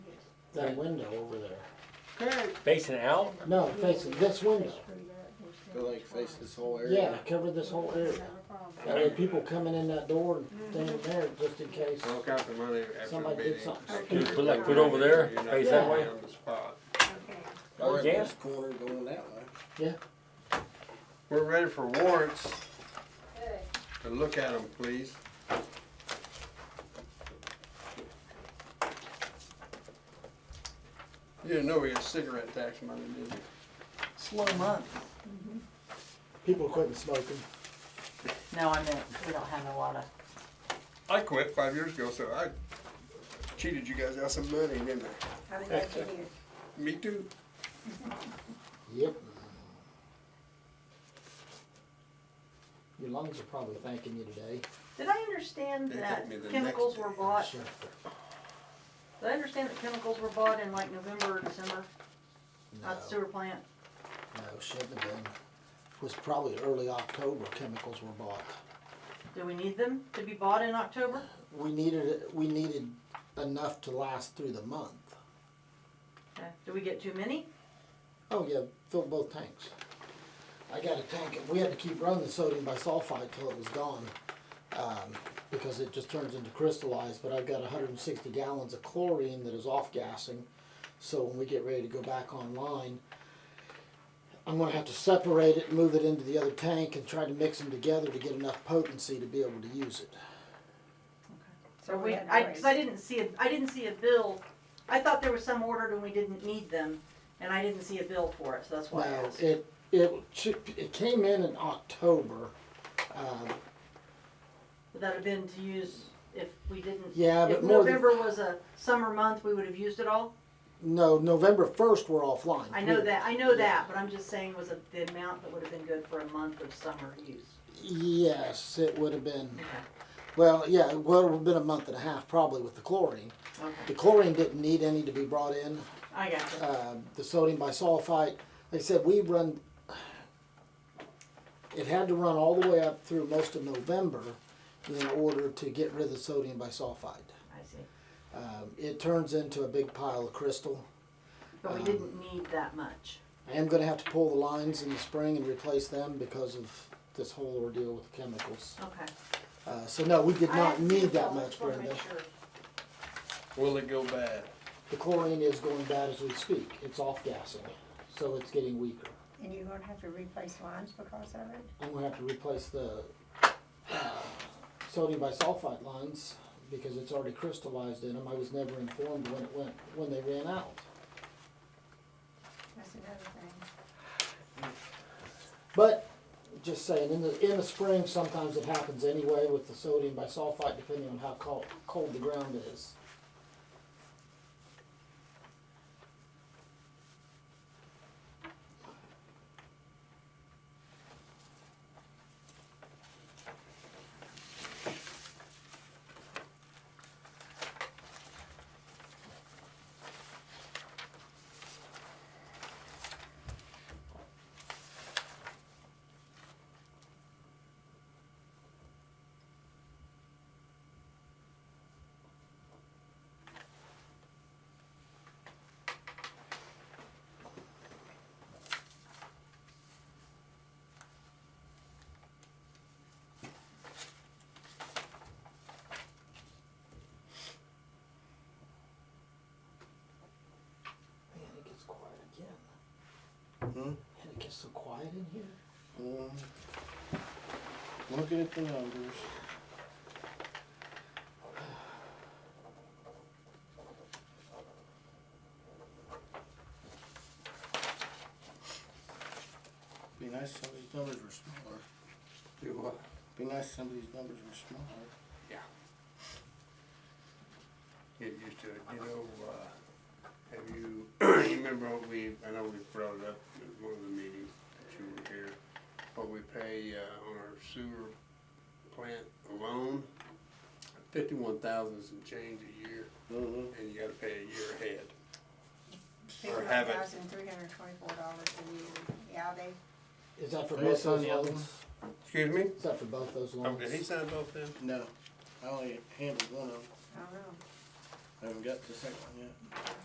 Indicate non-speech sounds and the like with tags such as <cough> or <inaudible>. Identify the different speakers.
Speaker 1: that window over there.
Speaker 2: Kurt,
Speaker 3: Facing out?
Speaker 1: No, facing this window.
Speaker 4: Go like face this whole
Speaker 1: Yeah,
Speaker 4: area.
Speaker 1: cover this whole area. That way people coming in that door and staying there just in case.
Speaker 5: Look out the money after the
Speaker 1: Somebody did
Speaker 5: meeting.
Speaker 1: something
Speaker 5: Make
Speaker 3: stupid.
Speaker 5: sure
Speaker 3: Put like
Speaker 5: you're
Speaker 3: foot over there,
Speaker 5: not
Speaker 3: face
Speaker 1: that
Speaker 5: down
Speaker 3: way.
Speaker 5: On the spot.
Speaker 4: Or at
Speaker 3: Yeah.
Speaker 4: this corner going that way.
Speaker 5: We're ready for warrants. To look at them, please. You didn't know we got cigarette tax money, did you?
Speaker 2: slow month.
Speaker 1: People quitting smoking.
Speaker 2: No, I meant, we don't have a lot of,
Speaker 5: I quit five years ago, so I cheated you guys out some money, didn't I? Me too.
Speaker 1: Yep. Your lungs are probably thanking you today.
Speaker 6: Did I understand
Speaker 5: They
Speaker 6: that
Speaker 5: hit me the
Speaker 6: chemicals
Speaker 5: next
Speaker 6: were
Speaker 5: day.
Speaker 6: bought,
Speaker 1: Sure.
Speaker 6: did I understand that chemicals were bought in like November or December
Speaker 1: No,
Speaker 6: at the sewer plant?
Speaker 1: no, shouldn't have been. Was probably early October chemicals were bought.
Speaker 6: Do we need them to be bought in October?
Speaker 1: We needed, it- we needed enough to last through the month.
Speaker 6: Okay. Do we get too many?
Speaker 1: Oh yeah, filled both tanks. I got a tank, we had to keep running the sodium bisulfite till it was gone, um, because it just turns into crystallized, but I've got hundred and sixty gallons of chlorine that is off-gassing. So when we get ready to go back online, I'm gonna have to separate it, move it into the other tank and try to mix them together to get enough potency to be able to use it.
Speaker 6: Or we, I, cause I didn't see, a I didn't see a bill. I thought there was some ordered and we didn't need them, and I didn't see a bill for it, so that's why I
Speaker 1: Well,
Speaker 6: asked.
Speaker 1: it, it, should- it came in in October, um,
Speaker 6: Would that have been to use if we didn't?
Speaker 1: Yeah,
Speaker 6: if
Speaker 1: but more than-
Speaker 6: November was a summer month, we would have used it all?
Speaker 1: no, November first, we're offline.
Speaker 6: I know
Speaker 1: period.
Speaker 6: that, I know that, but I'm just saying was a, the amount that would have been good for a month of summer use.
Speaker 1: Yes, it would have been.
Speaker 6: Okay.
Speaker 1: Well, yeah, it would have been a month and a half probably with the chlorine. The
Speaker 6: Okay,
Speaker 1: chlorine didn't need any to be brought in.
Speaker 6: I got you.
Speaker 1: Uh, the sodium bisulfite, like I said, we run. It had to run all the way up through most of November in order to get rid of the sodium bisulfite.
Speaker 6: I see.
Speaker 1: Um, it turns into a big pile of crystal.
Speaker 6: But
Speaker 1: Um,
Speaker 6: we didn't need that much.
Speaker 1: I am going to have to pull the lines in the spring and replace them because of this whole ordeal with the chemicals.
Speaker 6: Okay.
Speaker 1: Uh, so no, we did
Speaker 6: I
Speaker 1: not
Speaker 6: haven't seen
Speaker 1: need
Speaker 6: it
Speaker 1: that
Speaker 6: all, I
Speaker 1: much,
Speaker 6: just wanna
Speaker 1: Brenda.
Speaker 6: make sure.
Speaker 5: Will it go bad?
Speaker 1: The chlorine is going bad as we speak. It's off gassing, so it's getting weaker.
Speaker 7: And you're gonna have to replace lines because of it?
Speaker 1: I'm gonna have to replace the uh, sodium bisulfite lines because it's already crystallized in them. I was never informed when it went, when they ran out.
Speaker 7: That's another thing.
Speaker 1: But, just saying, in the, in the spring, sometimes it happens anyway with the sodium bisulfite, depending on how cold, cold the ground is. Man, it gets quiet again.
Speaker 4: Hmm?
Speaker 1: And it gets so quiet in here.
Speaker 4: Mm. Looking at the numbers. Be nice if some of these numbers were smaller.
Speaker 5: Do what?
Speaker 4: Be nice if some of these numbers were smaller.
Speaker 5: get used to it. You know, uh, have you, <clears throat> you remember what we, I know we brought it up at one of the meetings that you were here, what we pay, uh, on our sewer plant alone? Fifty-one thousand and change a year,
Speaker 4: Mm-hmm.
Speaker 5: and you gotta pay a year ahead. Or have it.
Speaker 7: Fifty-one thousand three hundred twenty-four dollars a year, yeah, they,
Speaker 1: Is that for
Speaker 4: Are you
Speaker 1: both those
Speaker 4: signing the other
Speaker 1: loans?
Speaker 4: ones?
Speaker 5: Excuse me?
Speaker 1: Is that for both those
Speaker 5: Oh,
Speaker 1: loans?
Speaker 5: did he sign both them?
Speaker 4: No, I only handled one of them.
Speaker 7: I don't know.
Speaker 4: I haven't got the second one yet.